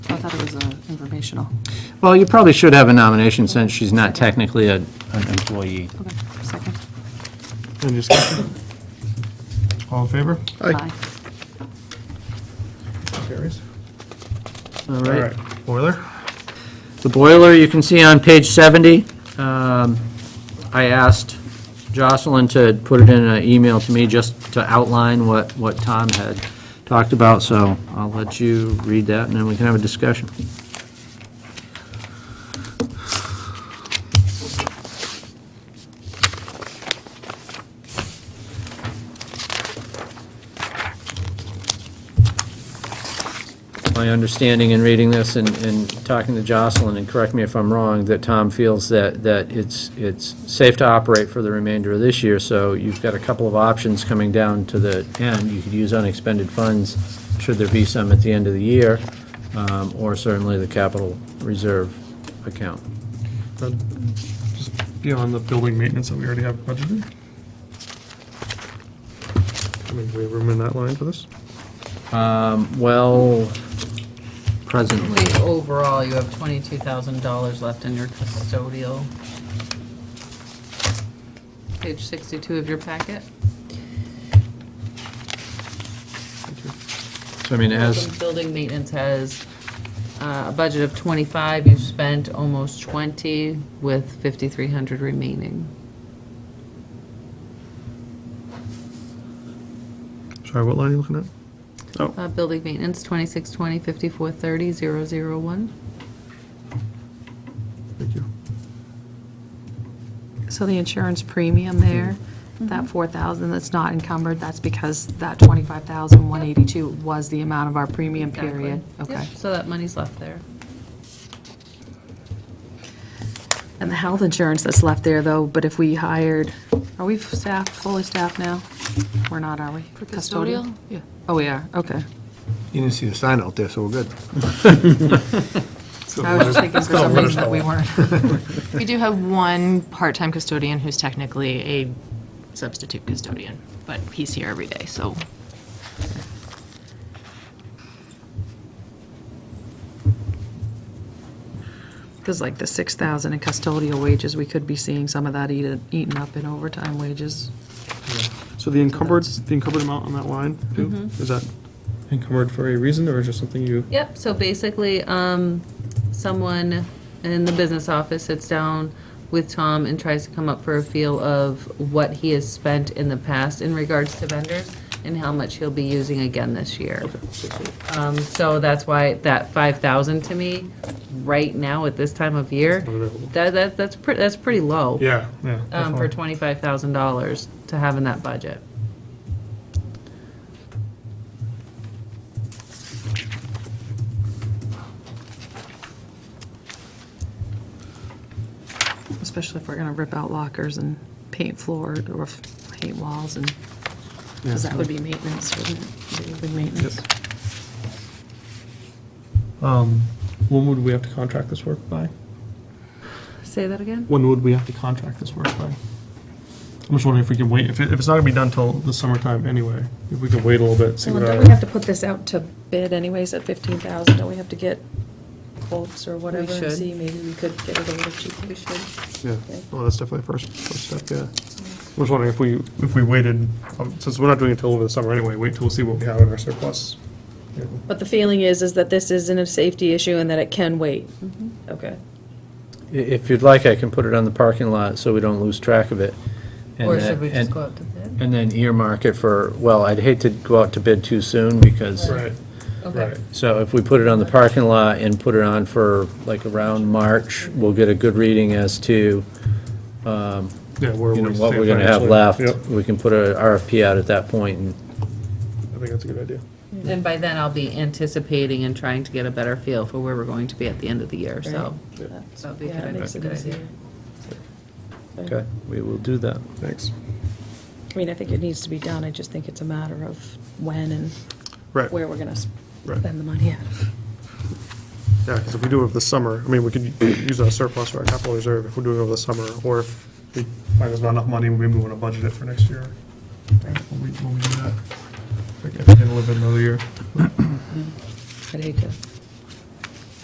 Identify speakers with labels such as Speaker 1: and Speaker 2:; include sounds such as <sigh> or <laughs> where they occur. Speaker 1: thought it was uh, informational.
Speaker 2: Well, you probably should have a nomination since she's not technically a- an employee.
Speaker 1: Okay, second.
Speaker 3: Any discussion? All in favor?
Speaker 1: Aye.
Speaker 3: Carries.
Speaker 2: All
Speaker 3: All
Speaker 2: right.
Speaker 3: right, boiler?
Speaker 2: The boiler, you can see on page 70. Um, I asked Jocelyn to put it in an email to me just to outline what, what Tom had talked about, so I'll let you read that, and then we can have a discussion. my understanding in reading this and, and talking to Jocelyn, and correct me if I'm wrong, that Tom feels that, that it's, it's safe to operate for the remainder of this year, so you've got a couple of options coming down to the end. You could use unexpended funds, should there be some at the end of the year, um, or certainly the capital reserve account.
Speaker 3: Then, Just beyond the building maintenance that we already have budgeted? I mean, do we have room in that line for this?
Speaker 2: Um, well, presently,
Speaker 4: Wait, overall, you have twenty-two thousand dollars left in your custodial. Page sixty-two of your packet.
Speaker 2: so I mean, as.
Speaker 4: Building maintenance has uh, a budget of twenty-five, you've spent almost twenty with fifty-three hundred remaining.
Speaker 3: Sorry, what line are you looking at? Oh,
Speaker 4: Uh, building maintenance, twenty-six twenty, fifty-four thirty, zero zero one.
Speaker 3: thank you.
Speaker 1: So the insurance premium there, that 4,000 that's not encumbered, that's because that 25,182 was the amount of our premium period? Okay.
Speaker 4: So that money's left there.
Speaker 1: And the health insurance that's left there, though, but if we hired, are we staffed, fully staffed now? We're not, are we? Custodial? Yeah. Oh, we are, okay.
Speaker 5: You didn't see the sign out there, so we're good.
Speaker 1: I was just thinking for some reason that we weren't.
Speaker 6: <laughs> We do have one part-time custodian who's technically a substitute custodian, but he's here every day, so.
Speaker 1: Because like the 6,000 in custodial wages, we could be seeing some of that eaten, eaten up in overtime wages.
Speaker 3: So the encumbered, the encumbered amount on that line, too,
Speaker 4: Mm-hmm.
Speaker 3: is that encumbered for a reason, or is just something you?
Speaker 4: Yep, so basically, um, someone in the business office sits down with Tom and tries to come up for a feel of what he has spent in the past in regards to vendors and how much he'll be using again this year. Um, so that's why that five thousand to me, right now at this time of year,
Speaker 3: Unavailable.
Speaker 4: that, that, that's pretty, that's pretty low.
Speaker 3: Yeah, yeah.
Speaker 4: Um, for twenty-five thousand dollars to have in that budget.
Speaker 1: especially if we're gonna rip out lockers and paint floor or f- paint walls and, because that would be maintenance, wouldn't it? Building maintenance.
Speaker 3: Um, when would we have to contract this work by?
Speaker 4: Say that again?
Speaker 3: When would we have to contract this work by? I'm just wondering if we can wait, if, it- if it's not gonna be done till the summertime anyway, if we could wait a little bit, see what
Speaker 1: Don't
Speaker 3: our.
Speaker 1: we have to put this out to bid anyways at fifteen thousand? Don't we have to get quotes or whatever and
Speaker 4: should.
Speaker 1: see, maybe we could get it a little cheaper? We should.
Speaker 3: Yeah, well, Oh, that's definitely first, first step, yeah. I was wondering if we, if we waited, um, since we're not doing it till over the summer anyway, wait till we see what we have in our surplus. Yeah.
Speaker 7: But the feeling is, is that this isn't a safety issue and that it can wait. Okay.
Speaker 2: I- If you'd like, I can put it on the parking lot so we don't lose track of it. And
Speaker 4: Or
Speaker 2: that-
Speaker 4: should we
Speaker 2: and-
Speaker 4: just go out to bid?
Speaker 2: And then earmark it for, well, I'd hate to go out to bid too soon because,
Speaker 3: Right,
Speaker 4: Okay.
Speaker 3: right.
Speaker 2: so if we put it on the parking lot and put it on for like around March, we'll get a good reading as to, um,
Speaker 3: Yeah, where
Speaker 2: you know,
Speaker 3: we
Speaker 2: what
Speaker 3: stand
Speaker 2: we're gonna have
Speaker 3: financially.
Speaker 2: left.
Speaker 3: Yep,
Speaker 2: We can put a RFP out at that point and
Speaker 3: I think that's a good idea.
Speaker 4: And by then, I'll be anticipating and trying to get a better feel for where we're going to be at the end of the year, so. That'd be a
Speaker 7: Yeah,
Speaker 4: good
Speaker 7: it makes it
Speaker 4: idea.
Speaker 7: easier.
Speaker 2: Okay, we will do that.
Speaker 3: Thanks.
Speaker 7: I mean, I think it needs to be done, I just think it's a matter of when and
Speaker 3: Right,
Speaker 7: where we're gonna
Speaker 3: Right.
Speaker 7: spend the money <laughs> out of.
Speaker 3: yeah, because if we do it over the summer, I mean, we could use our surplus or our capital reserve if we're doing it over the summer, or if we find there's not enough money, maybe we want to budget it for next year. When we, when we do that. If we can live another year.
Speaker 7: I'd hate to